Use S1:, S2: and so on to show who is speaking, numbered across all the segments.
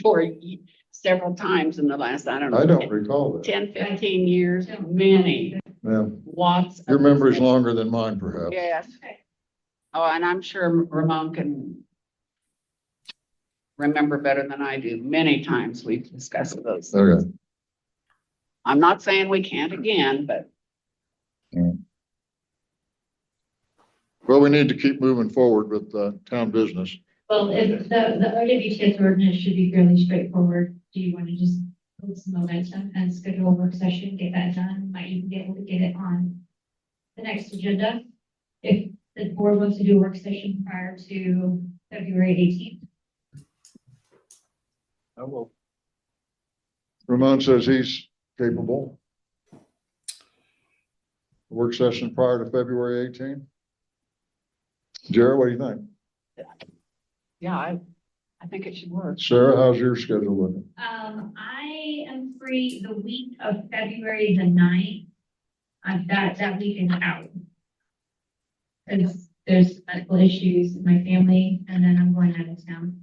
S1: for y- several times in the last, I don't know.
S2: I don't recall that.
S1: Ten, fifteen years, many,
S2: Ma'am,
S1: lots. of
S2: your memory's
S1: discussion.
S2: longer than mine perhaps.
S1: Yes. Oh, and I'm sure Ramon can remember better than I do. Many times we've discussed those.
S2: Okay,
S1: I'm not saying we can't again, but
S2: well, we need to keep moving forward with, uh, town business.
S3: Well, if the, the OWTS ordinance should be fairly straightforward. Do you want to just build some momentum and schedule a work session, get that done? Might even be able to get it on the next agenda. If the board wants to do a work session prior to February eighteenth.
S4: I will.
S2: Ramon says he's capable. Work session prior to February 18. Jared, what do you think?
S1: yeah, I, I think it should work.
S2: Sarah, how's your schedule looking?
S3: Um, I am free the week of February the ninth. I've got that weekend out. Because there's medical issues in my family and then I'm going out of town.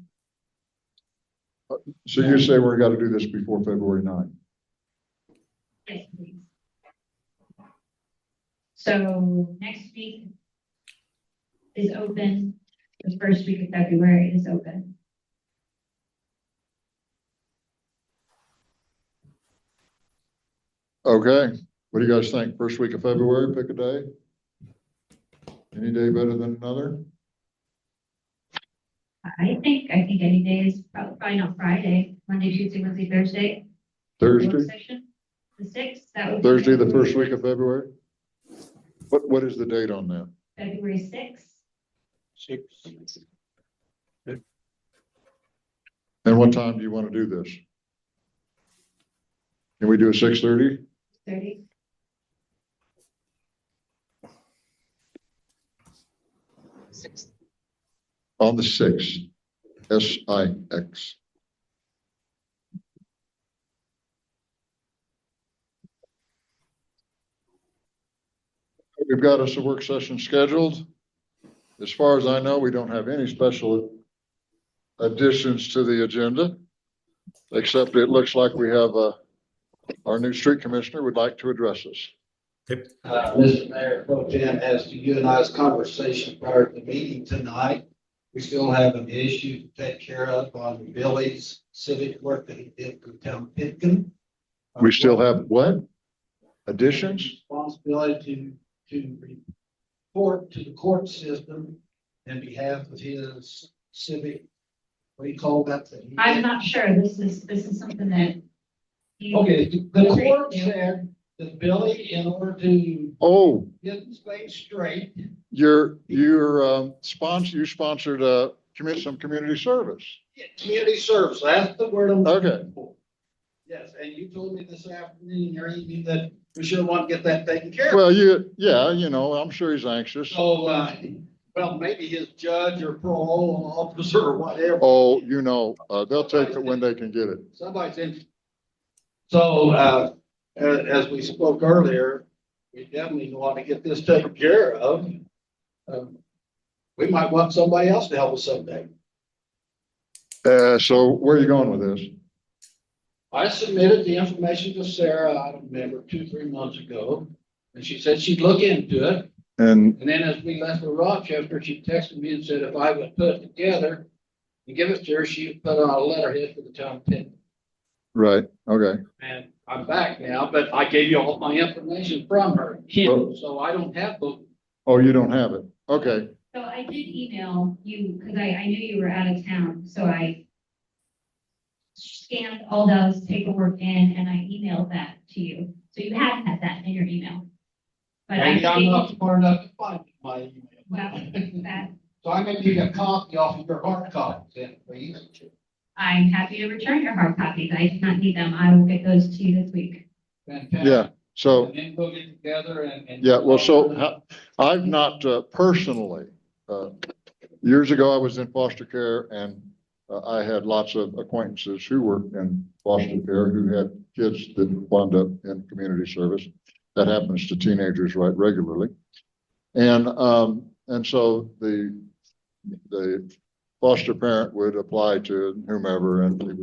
S2: So you say we're gotta do this before February 9.
S3: Yes, please. So next week is open, the first week of February is open.
S2: Okay, what do you guys think? First week of February, pick a day? Any day better than another?
S3: I think, I think any day is prob- probably not Friday, Monday, Tuesday, Wednesday, Thursday. work
S2: Thursday,
S3: session, The sixth, that would. be
S2: Thursday, the
S3: February-
S2: first week of February? What, what is the date on that?
S3: February sixth,
S4: Six,
S2: And what time do you want to do this? Can we do a six thirty?
S3: thirty.
S1: Six-
S2: On the sixth, S I X. We've got us a work session scheduled. As far as I know, we don't have any special additions to the agenda. Except it looks like we have a, our new street commissioner would like to address us.
S5: Uh, Mr. Mayor, Pro Tem, as to you and I's conversation prior to the meeting tonight, we still have an issue to take care of on Billy's civic work that he did for town Pitkin.
S2: We still have what? Additions?
S5: Responsibility to, to report to the court system in behalf of his civic, what do you call that? that he did?
S3: I'm not sure, this is, this is something that. you-
S5: Okay, the court said that Billy, in order to
S2: Oh,
S5: get his thing straight,
S2: You're, you're, um, sponsor, you sponsored, uh, commit some community service.
S5: community service, that's the word I'm
S2: Okay,
S5: Yes, and you told me this afternoon, or evening, that we should want to get that taken care of.
S2: well, you, yeah, you know, I'm sure he's anxious.
S5: So, uh, well, maybe his judge or parole officer or whatever,
S2: Oh, you know, uh, they'll take it when they can get it.
S5: somebody's in. So, uh, a- as we spoke earlier, we definitely want to get this taken care of. Um, We might want somebody else to help us someday.
S2: Uh, so where are you going with this?
S5: I submitted the information to Sarah, I don't remember, two, three months ago, and she said she'd look into it.
S2: And
S5: And then as we left for Rochester, she texted me and said if I would put it together and give it to her, she would put it on a letterhead for the town of Pitt.
S2: right, okay.
S5: And I'm back now, but I gave you all my information from her,
S2: Well,
S5: so I don't have the.
S2: Oh, you don't have it. Okay,
S3: So I did email you, because I, I knew you were out of town, so I scanned all those paperwork in and I emailed that to you. So you have had that in your email. But I
S5: Maybe I'm not
S3: didn't,
S5: smart enough to find my
S3: well,
S5: email.
S3: that,
S5: So I may need a copy off of your hard copy then, please.
S3: I'm happy to return your hard copies. I do not need them. I will get those to you this week.
S5: Fantastic.
S2: yeah, so,
S5: And then we'll get together and. and- um,
S2: yeah, well, so how- I've not, uh, personally, uh, years ago I was in foster care and uh, I had lots of acquaintances who were in foster care who had kids that wound up in community service. That happens to teenagers right regularly. And, um, and so the, the foster parent would apply to whomever and it